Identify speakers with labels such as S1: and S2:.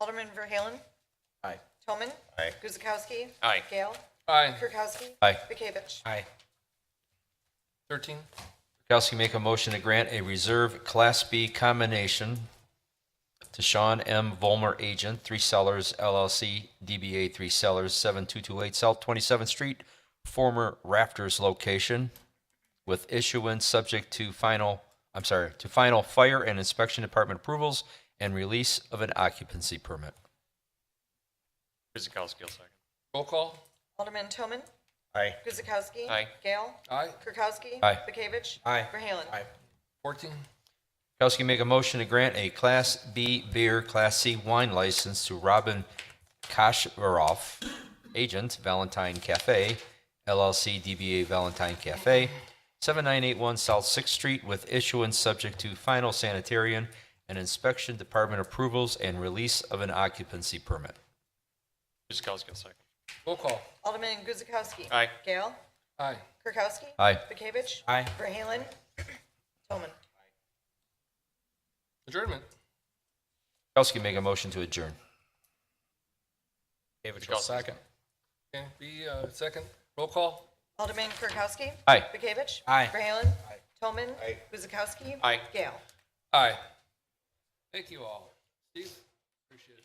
S1: Alderman Verhaelen.
S2: Aye.
S1: Toman.
S3: Aye.
S1: Guzekowski.
S4: Aye.
S1: Gale.
S4: Aye.
S1: Kirkowski.
S2: Aye.
S1: Bekavich.
S4: Aye. Thirteen.
S2: Kirkowski make a motion to grant a reserve Class B combination to Sean M. Volmer Agent, Three Sellers LLC, DBA Three Sellers, 7228 South 27th Street, former Rafters location, with issuance subject to final, I'm sorry, to final fire and inspection department approvals and release of an occupancy permit.
S4: Kuzakowski, second. Roll call.
S1: Alderman Toman.
S3: Aye.
S1: Guzekowski.
S4: Aye.
S1: Gale.
S4: Aye.
S1: Kirkowski.
S2: Aye.
S1: Bekavich.
S4: Aye.
S1: Verhaelen.
S4: Fourteen.
S2: Kirkowski make a motion to grant a Class B beer, Class C wine license to Robin Kasharov, agent, Valentine Cafe, LLC DBA Valentine Cafe, 7981 South Sixth Street, with issuance subject to final sanitarian and inspection department approvals and release of an occupancy permit.
S4: Kuzakowski, second. Roll call.
S1: Alderman Guzekowski.
S4: Aye.
S1: Gale.
S4: Aye.
S1: Kirkowski.
S2: Aye.
S1: Bekavich.
S2: Aye.
S1: Verhaelen. Toman.
S4: Adjournment.
S2: Kirkowski make a motion to adjourn.
S4: Second. Can be, uh, second. Roll call.
S1: Alderman Kirkowski.
S2: Aye.
S1: Bekavich.
S2: Aye.
S1: Verhaelen. Toman.
S3: Aye.
S1: Guzekowski.
S4: Aye.
S1: Gale.
S4: Aye. Thank you all. Steve, appreciate it.